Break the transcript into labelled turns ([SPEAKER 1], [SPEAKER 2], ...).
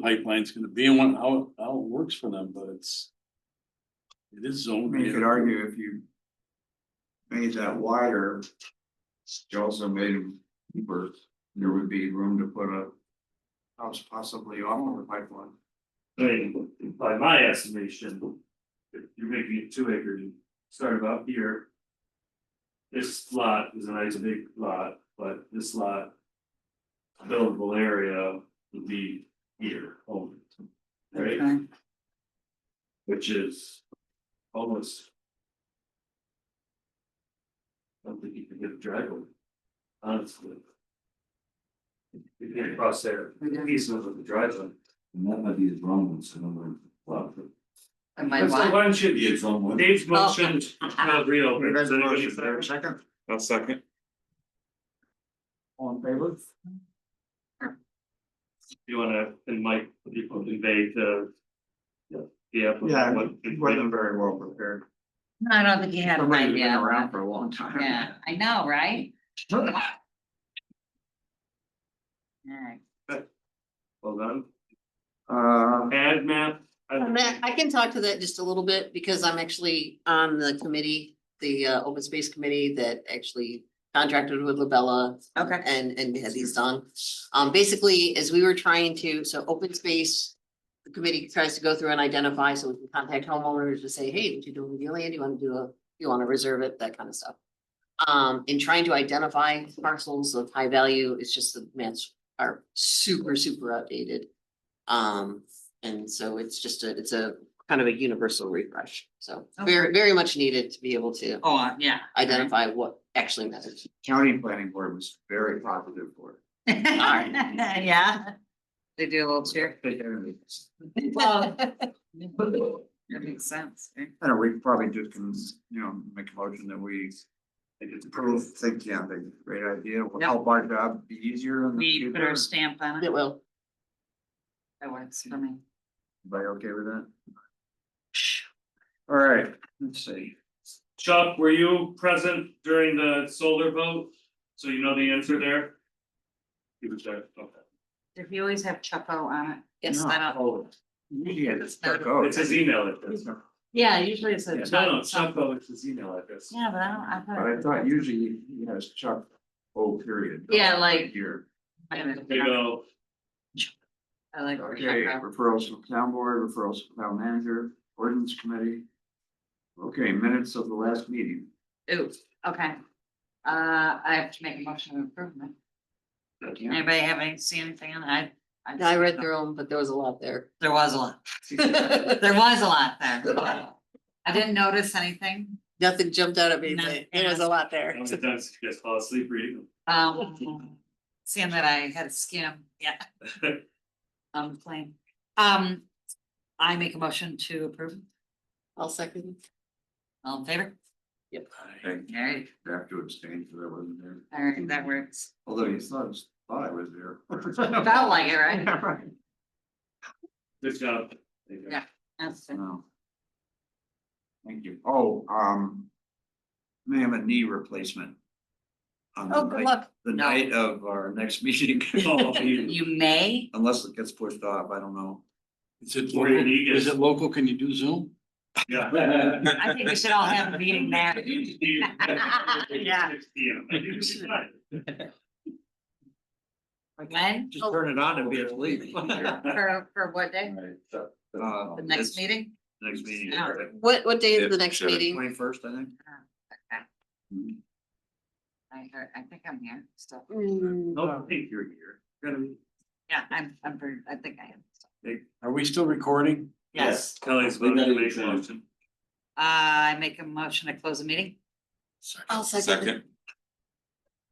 [SPEAKER 1] the pipeline's gonna be and what, how, how it works for them, but it's. It is
[SPEAKER 2] I
[SPEAKER 1] zoned.
[SPEAKER 2] mean, you could argue if you. Made that wider. You also made it deeper, there would be room to put a. House possibly on the pipeline.
[SPEAKER 3] I mean, by my estimation, if you're making it two acre, you start about here. This lot is a nice big lot, but this lot. Buildable area would be here only. Right,
[SPEAKER 4] Okay.
[SPEAKER 3] which is almost. I don't think you can get a driveway, honestly. You can cross there, he's over the driveway.
[SPEAKER 5] And that might be his wrong one, so I'm
[SPEAKER 3] Well,
[SPEAKER 4] Am I
[SPEAKER 3] that's the
[SPEAKER 4] what?
[SPEAKER 3] one should
[SPEAKER 5] Maybe it's wrong one.
[SPEAKER 4] Oh,
[SPEAKER 3] Dave's motion, not real.
[SPEAKER 2] There's a motion, there a second,
[SPEAKER 3] I'll second.
[SPEAKER 2] all in favor?
[SPEAKER 3] You wanna, and Mike, if you can convey the. uh, Yeah.
[SPEAKER 2] Yeah,
[SPEAKER 3] what-
[SPEAKER 2] he wasn't very well prepared.
[SPEAKER 4] No, I don't think you had an
[SPEAKER 2] Somebody's been
[SPEAKER 4] idea.
[SPEAKER 2] Around for a long time.
[SPEAKER 4] Yeah, I know, right? Alright.
[SPEAKER 3] Well done.
[SPEAKER 2] Uh,
[SPEAKER 3] Add map.
[SPEAKER 6] And that- I can talk to that just a little bit because I'm actually on the committee, the uh open space committee that actually contracted with Labella
[SPEAKER 4] Okay.
[SPEAKER 6] and and had these done. Um, basically, as we were trying to, so open space. The committee tries to go through and identify, so we can contact homeowners to say, hey, what you doing with your land? You wanna do a, you wanna reserve it, that kind of stuff. Um, in trying to identify parcels of high value, it's just the maps are super, super outdated. Um, and so it's just a, it's a kind of a universal refresh, so very, very much needed to be able to
[SPEAKER 4] Oh, uh, yeah.
[SPEAKER 6] identify what actually matters.
[SPEAKER 2] county planning board was very positive for it.
[SPEAKER 6] right.
[SPEAKER 4] Yeah. They do a little cheer.
[SPEAKER 2] They had it.
[SPEAKER 4] Well. That makes sense. eh?
[SPEAKER 2] I know, we probably just can, you know, make a motion that we. Approve, think, yeah, that's a great idea, will help our job be easier in the
[SPEAKER 4] We
[SPEAKER 2] future.
[SPEAKER 4] put our stamp on it.
[SPEAKER 6] It will.
[SPEAKER 4] That works for me.
[SPEAKER 2] Everybody okay with that? All right, let's see,
[SPEAKER 3] Chuck, were you present during the solar vote? So you know the answer there? He was there, okay.
[SPEAKER 4] If you always have Choco on it.
[SPEAKER 6] Yes.
[SPEAKER 4] I don't-
[SPEAKER 3] Oh,
[SPEAKER 2] yeah, that's.
[SPEAKER 4] It's
[SPEAKER 3] it's his email address. Yeah,
[SPEAKER 4] Yeah, usually it's a.
[SPEAKER 3] No, no, Chuck, oh, it's his email address.
[SPEAKER 4] Yeah, but I don't, I
[SPEAKER 2] But I
[SPEAKER 4] thought.
[SPEAKER 2] thought usually, you know, it's Chuck, oh, period.
[SPEAKER 4] Yeah, like-
[SPEAKER 2] Here,
[SPEAKER 3] There you go.
[SPEAKER 4] I like.
[SPEAKER 2] okay,
[SPEAKER 4] Choco.
[SPEAKER 2] referrals from town board, referrals from town manager, ordinance committee. Okay, minutes of the last meeting,
[SPEAKER 4] Ooh, okay. Uh, I have to make a motion of improvement. Oh, Anybody have any, see anything on it? I?
[SPEAKER 6] I read through them, but there was a lot there.
[SPEAKER 4] There was a lot. There was a lot there. I didn't notice anything.
[SPEAKER 6] Nothing jumped out at me, but there was a lot there.
[SPEAKER 3] Sometimes you guys fall asleep reading
[SPEAKER 4] Um, seeing that I had a skim, yeah,
[SPEAKER 3] them.
[SPEAKER 4] on the plane. Um, I make a motion to approve.
[SPEAKER 6] I'll second.
[SPEAKER 4] All in favor?
[SPEAKER 6] Yep.
[SPEAKER 2] okay,
[SPEAKER 4] All right,
[SPEAKER 2] I have to abstain because I wasn't there.
[SPEAKER 4] all right, that works.
[SPEAKER 2] Although you thought, thought I was there.
[SPEAKER 4] Felt like it, right?
[SPEAKER 2] Yeah, right.
[SPEAKER 3] Good job. There you go.
[SPEAKER 4] Yeah. That's it.
[SPEAKER 2] Wow. Thank you. Oh, um. May have a knee replacement. On the
[SPEAKER 6] Oh, good
[SPEAKER 2] night,
[SPEAKER 6] luck.
[SPEAKER 2] the
[SPEAKER 4] No.
[SPEAKER 2] night of our next meeting,
[SPEAKER 3] Oh, you-
[SPEAKER 4] You may,
[SPEAKER 2] unless it gets pushed off, I don't know.
[SPEAKER 1] Is it
[SPEAKER 3] Or you
[SPEAKER 1] local?
[SPEAKER 3] need it.
[SPEAKER 1] Is it local? Can you do Zoom?
[SPEAKER 3] Yeah.
[SPEAKER 4] I think we should all have a meeting there. Yeah.
[SPEAKER 3] Six P M. I think it's fine.
[SPEAKER 4] when,
[SPEAKER 2] Just turn it on and be asleep. Uh,
[SPEAKER 4] for, for what day? Oh. The next
[SPEAKER 2] it's
[SPEAKER 4] meeting? Oh.
[SPEAKER 2] Next meeting.
[SPEAKER 4] Yeah.
[SPEAKER 6] What, what day is the next meeting?
[SPEAKER 2] Twenty first, I think. Mhm.
[SPEAKER 4] I, heard- I think I'm here still.
[SPEAKER 6] Mm,
[SPEAKER 3] No, I think you're here. You're gonna be-
[SPEAKER 4] Yeah, I'm, I'm, pretty- I think I am. still.
[SPEAKER 1] Are we still recording?
[SPEAKER 4] Yes, Uh,
[SPEAKER 3] Kelly's
[SPEAKER 5] We
[SPEAKER 3] voting
[SPEAKER 5] gotta
[SPEAKER 3] to make a
[SPEAKER 5] adjourn.
[SPEAKER 3] motion.
[SPEAKER 4] I make a motion to close the meeting.
[SPEAKER 6] I'll second.